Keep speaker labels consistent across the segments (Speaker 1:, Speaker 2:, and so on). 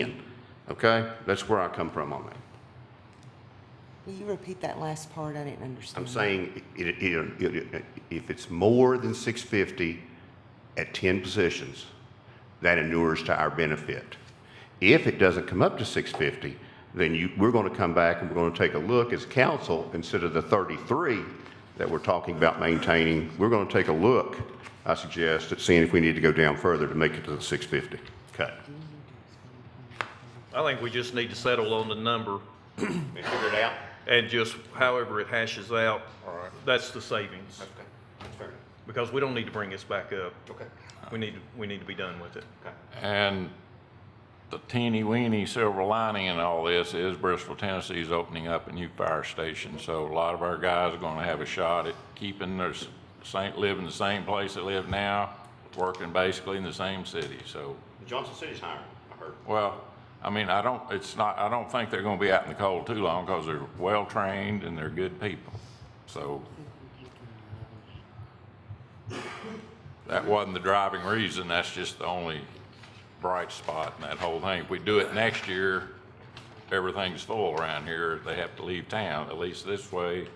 Speaker 1: in, okay? That's where I come from on that.
Speaker 2: Will you repeat that last part? I didn't
Speaker 1: I'm
Speaker 2: understand.
Speaker 1: saying it, it- it- it- if it's more than six fifty at ten positions, that inures to our benefit. If it doesn't come up to six fifty, then you, we're gonna come back and we're gonna take a look as council, instead of the thirty-three that we're talking about maintaining, we're gonna take a look, I suggest, at seeing if we need to go down further to make it to the six fifty cut.
Speaker 3: I think we just need to settle on the number
Speaker 1: And figure it out.
Speaker 3: and just however it hashes out,
Speaker 1: All right.
Speaker 3: that's the savings.
Speaker 1: Okay, that's fair.
Speaker 3: Because we don't need to bring this back up.
Speaker 1: Okay,
Speaker 3: We need, we need to be done with it.
Speaker 1: okay.
Speaker 4: And the teeny weeny silver lining in all this is Bristol, Tennessee's opening up a new fire station. So a lot of our guys are gonna have a shot at keeping their s- same, live in the same place they live now, working basically in the same city, so.
Speaker 1: Johnson City's hiring, I heard.
Speaker 4: Well, I mean, I don't, it's not, I don't think they're gonna be out in the cold too long because they're well-trained and they're good people. So that wasn't the driving reason. That's just the only bright spot in that whole thing. If we do it next year, everything's full around here. They have to leave town. At least this way,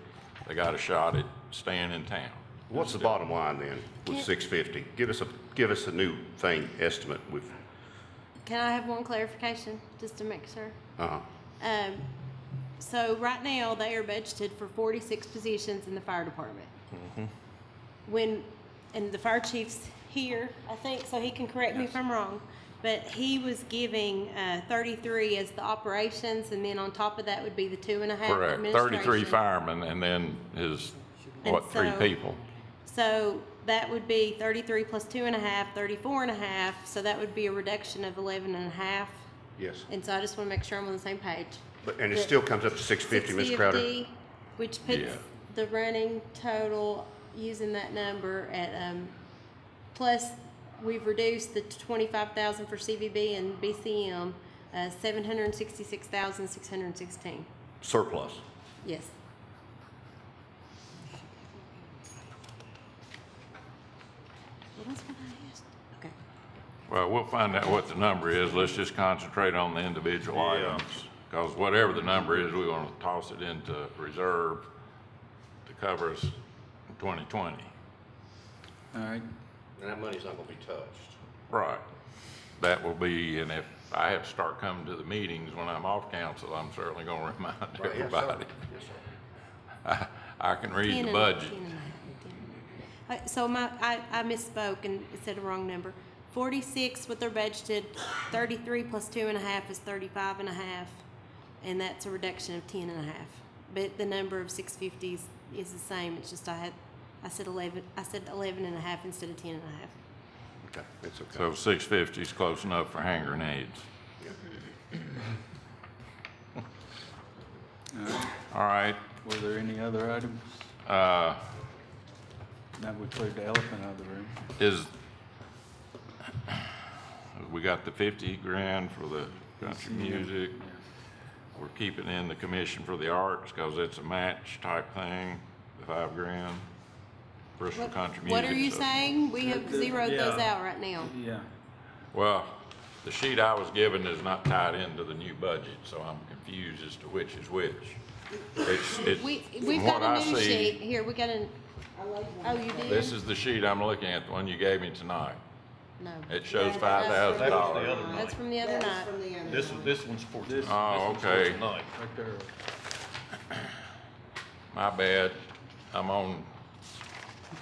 Speaker 4: they got a shot at staying in town.
Speaker 1: What's the bottom line then with six fifty? Give us a, give us a new thing, estimate with,
Speaker 5: Can I have one clarification, just to make sure?
Speaker 4: Uh-huh.
Speaker 1: uh,
Speaker 5: Um, so right now, they are budgeted for forty-six positions in the fire department. When, and the fire chief's here, I think, so he can correct me if I'm wrong, but he was giving, uh, thirty-three as the operations, and then on top of that would be the two and a half
Speaker 4: Correct.
Speaker 5: administration.
Speaker 4: Thirty-three firemen and then his, what,
Speaker 5: And
Speaker 4: three
Speaker 5: so-
Speaker 4: people?
Speaker 5: So that would be thirty-three plus two and a half, thirty-four and a half, so that would be a reduction of eleven and a half.
Speaker 1: yes.
Speaker 5: And so I just wanna make sure I'm on the same page.
Speaker 1: But, and it still comes up to six fifty, Ms. Crowder?
Speaker 5: 650, Which puts
Speaker 4: Yeah.
Speaker 5: the running total, using that number at, um, plus, we've reduced the twenty-five thousand for CVB and BCM, uh, seven hundred and sixty-six thousand, six hundred and sixteen.
Speaker 1: Surplus.
Speaker 5: Yes. Well, that's what I asked. Okay.
Speaker 4: Well, we'll find out what the number is. Let's just concentrate on the individual
Speaker 3: Yeah.
Speaker 4: items. Because whatever the number is, we want to toss it into reserve to cover us in 2020.
Speaker 6: All right,
Speaker 1: And that money's not gonna be touched.
Speaker 4: Right. That will be, and if I have to start coming to the meetings when I'm off council, I'm certainly going to remind everybody.
Speaker 1: Yes, sir.
Speaker 4: I can read
Speaker 5: Ten
Speaker 4: the
Speaker 5: and-
Speaker 4: budget.
Speaker 5: ten and a half, ten and a half. Uh, So my, I, I misspoke and said a wrong number. Forty-six what they're budgeted, thirty-three plus two and a half is thirty-five and a half, and that's a reduction of ten and a half. But the number of six fifties is the same, it's just I had, I said eleven, I said eleven and a half instead of ten and a half.
Speaker 1: Okay, it's okay.
Speaker 4: So 650 is close enough for hand grenades. All right,
Speaker 6: were there any other items?
Speaker 4: uh,
Speaker 6: That would clear the elephant out of the room.
Speaker 4: Is, we got the fifty grand for the country music. We're keeping in the commission for the arts because it's a match type thing, the five grand. Bristol Country Music.
Speaker 5: What are you
Speaker 4: so-
Speaker 5: saying? We have
Speaker 6: the-
Speaker 5: zeroed those
Speaker 3: yeah.
Speaker 5: out right now.
Speaker 6: Yeah,
Speaker 4: Well, the sheet I was given is not tied into the new budget, so I'm confused as to which is which. It's, it's,
Speaker 5: We,
Speaker 4: from
Speaker 5: we've
Speaker 4: what
Speaker 5: got
Speaker 4: I
Speaker 5: a new sheet,
Speaker 4: see,
Speaker 5: here, we got an, oh, you did?
Speaker 4: this is the sheet I'm looking at, the one you gave me tonight.
Speaker 5: No.
Speaker 4: It shows
Speaker 5: No,
Speaker 4: five
Speaker 5: that's from-
Speaker 4: thousand
Speaker 3: That was
Speaker 4: dollars.
Speaker 3: the other night.
Speaker 5: That's from the other night.
Speaker 3: This, this one's for, this this
Speaker 4: Oh,
Speaker 3: one's for
Speaker 4: okay.
Speaker 3: tonight.
Speaker 6: right there.
Speaker 4: My bad. I'm on,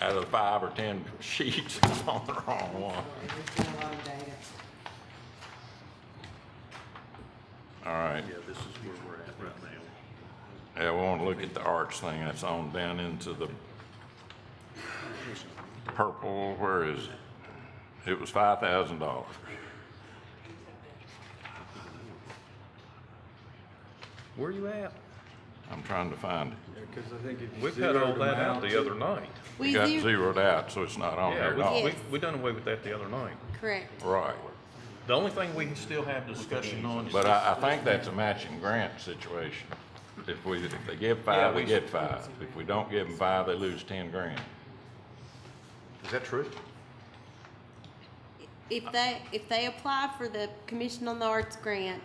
Speaker 4: out of five or 10 sheets, I'm on the wrong one. All right.
Speaker 3: Yeah, this is where we're at right now.
Speaker 4: Yeah, we want to look at the arch thing that's on down into the purple, where is it? It was $5,000.
Speaker 3: Where you at?
Speaker 4: I'm trying to find it.
Speaker 6: Because I think if
Speaker 3: We
Speaker 6: you
Speaker 3: cut all
Speaker 6: zeroed them
Speaker 3: that out
Speaker 6: out.
Speaker 3: the other night.
Speaker 4: It
Speaker 5: We
Speaker 4: got
Speaker 5: do,
Speaker 4: zeroed out, so it's
Speaker 1: Oh,
Speaker 4: not on there at
Speaker 3: Yeah,
Speaker 4: all.
Speaker 3: we, we, we done away with that the other night.
Speaker 5: correct.
Speaker 4: Right.
Speaker 3: The only thing we can still have discussion on is.
Speaker 4: But I, I think that's a matching grant situation. If we, if they give
Speaker 3: Yeah,
Speaker 4: five,
Speaker 3: we-
Speaker 4: we get five. If we don't give them five, they lose 10 grand.
Speaker 1: Is that true?
Speaker 5: if they, if they apply for the Commission on the Arts grant,